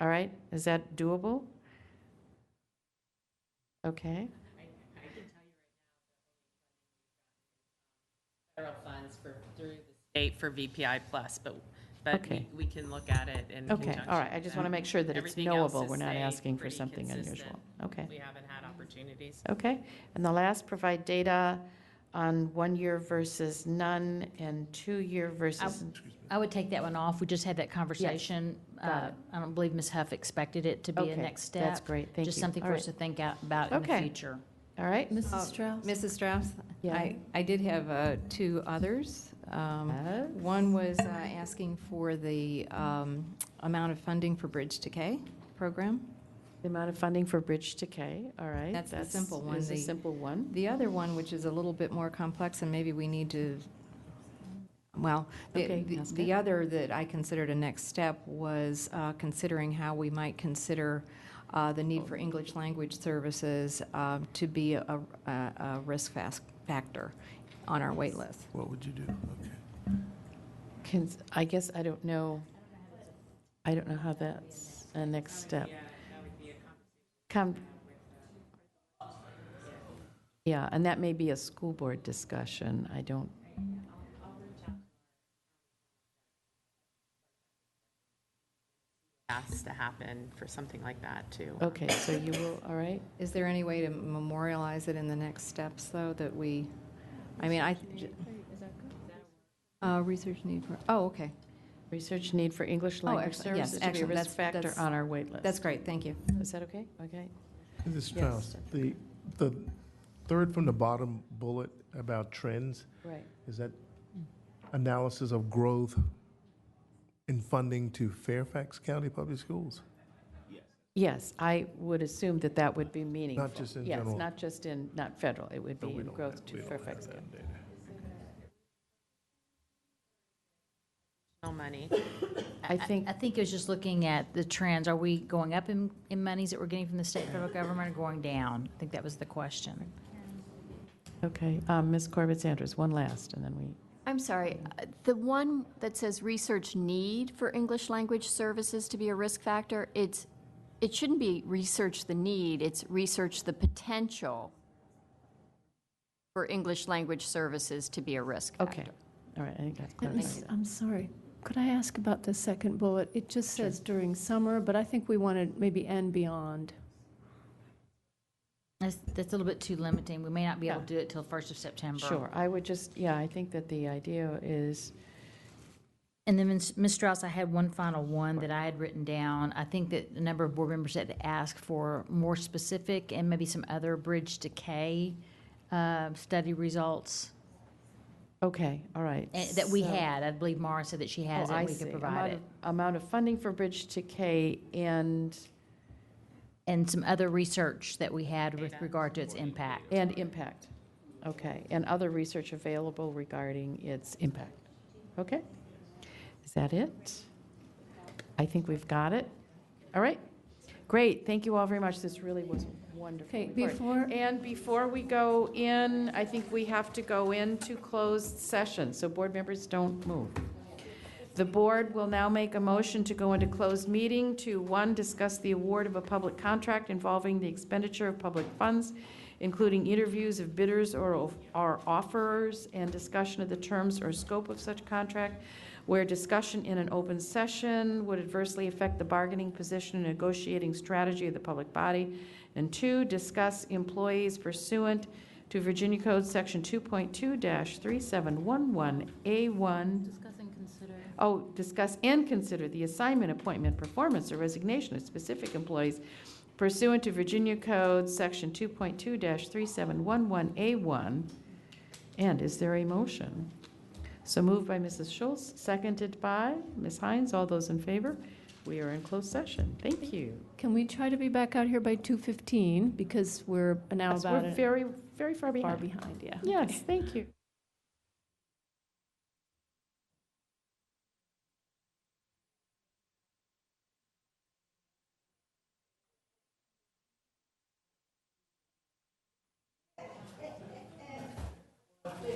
All right, is that doable? Okay, federal funds for, through the state for VPI plus, but, but we- Okay. we can look at it in okay, all right, I just want to make sure that it's Everything else knowable, is we're not stayed asking for pretty something unusual. consistent. Okay, We haven't had opportunities. okay. And the last, provide data on one-year versus none and two-year versus, I would take that one off. We just had that conversation. Got Uh, it. I don't believe Ms. Huff expected it to be okay, a next step. that's great, thank you. Just something All for right, us to think out- about in the Okay. Um, future. All right, Uh, Mrs. Strauss? Mrs. Strauss? Yeah. I, I did have uh, two others. Um, Oh. One was uh, asking for the um, amount of funding for Bridge to K program. the amount of funding for Bridge to K, all right. That's the simple one, Is a the- simple one, The other one, which is a little bit more complex, and maybe we need to, well, the- Okay, the ask the it. other that I considered a next step was uh, considering how we might consider uh, the need for English language services um, to be a a- a risk fas- factor on our wait list. What would you do? Okay. Can, I guess I don't know, I don't know how that's a next step. Come. Yeah, and that may be a school board discussion, I don't. Has to happen for something like that, too. Okay, so you will, all right? Is there any way to memorialize it in the next steps, though, that we, I mean, I. Uh, Research need for, oh, okay. Research need for English language excellent. Yes, services to be a excellent. risk That's- factor that's- on our wait list. That's great, thank you. Is that okay? Okay. Mrs. Strauss, the, the third from the bottom bullet about trends, Right. is that analysis of growth in funding to Fairfax County Public Schools? Yes, I would assume that that would be meaningful. just in Yes, general. not just in, not federal, it would No, be we in don't growth have- to we don't Fairfax have County. that data. No money. I think, I think it was just looking at the trends. Are we going up in, in monies that we're getting from the state and federal government or going down? I think that was the question. okay, um, Ms. Corbett Sanders, one last, and then we, I'm sorry, uh, the one that says research need for English language services to be a risk factor, it's, it shouldn't be research the need, it's research the potential for English language services to be a risk factor. okay. All right, I think that Thank clarifies you. it. I'm sorry, could I ask about the second bullet? It just says during summer, but I think we wanted maybe and beyond. That's, that's a little bit too limiting. We may not be able Yeah. to do it till first of September. Sure, I would just, yeah, I think that the idea is, And then, Ms. Ms. Strauss, I had one final one that I had written down. I think that a number of board members had asked for more specific and maybe some other bridge decay uh, study results okay, all right. eh, that we so- had. I believe Mara said that she has Oh, it, I and we see. could Amount provide it. of- Amount of funding for Bridge to K and, And some other research that we had with regard to its impact. and impact. Okay, and other research available regarding its impact. Okay? Is that it? I think we've got it. All right. Great, thank you all very much. This really was wonderful. Okay, report. before- And before we go in, I think we have to go into closed session, so board members don't move. The board will now make a motion to go into closed meeting to, one, discuss the award of a public contract involving the expenditure of public funds, including interviews of bidders or, or offerers, and discussion of the terms or scope of such contract, where discussion in an open session would adversely affect the bargaining position and negotiating strategy of the public body, and two, discuss employees pursuant to Virginia Code Section 2.2-3711A1 Oh, discuss and consider the assignment, appointment, performance, or resignation of specific employees pursuant to Virginia Code, Section 2.2-3711A1. And is there a motion? So moved by Mrs. Schultz, seconded by Ms. Hines. All those in favor? We are in closed session. Thank you. Can we try to be back out here by 2:15, because we're now Yes, about We're an very, very far far behind. behind, yeah. Yes, thank you.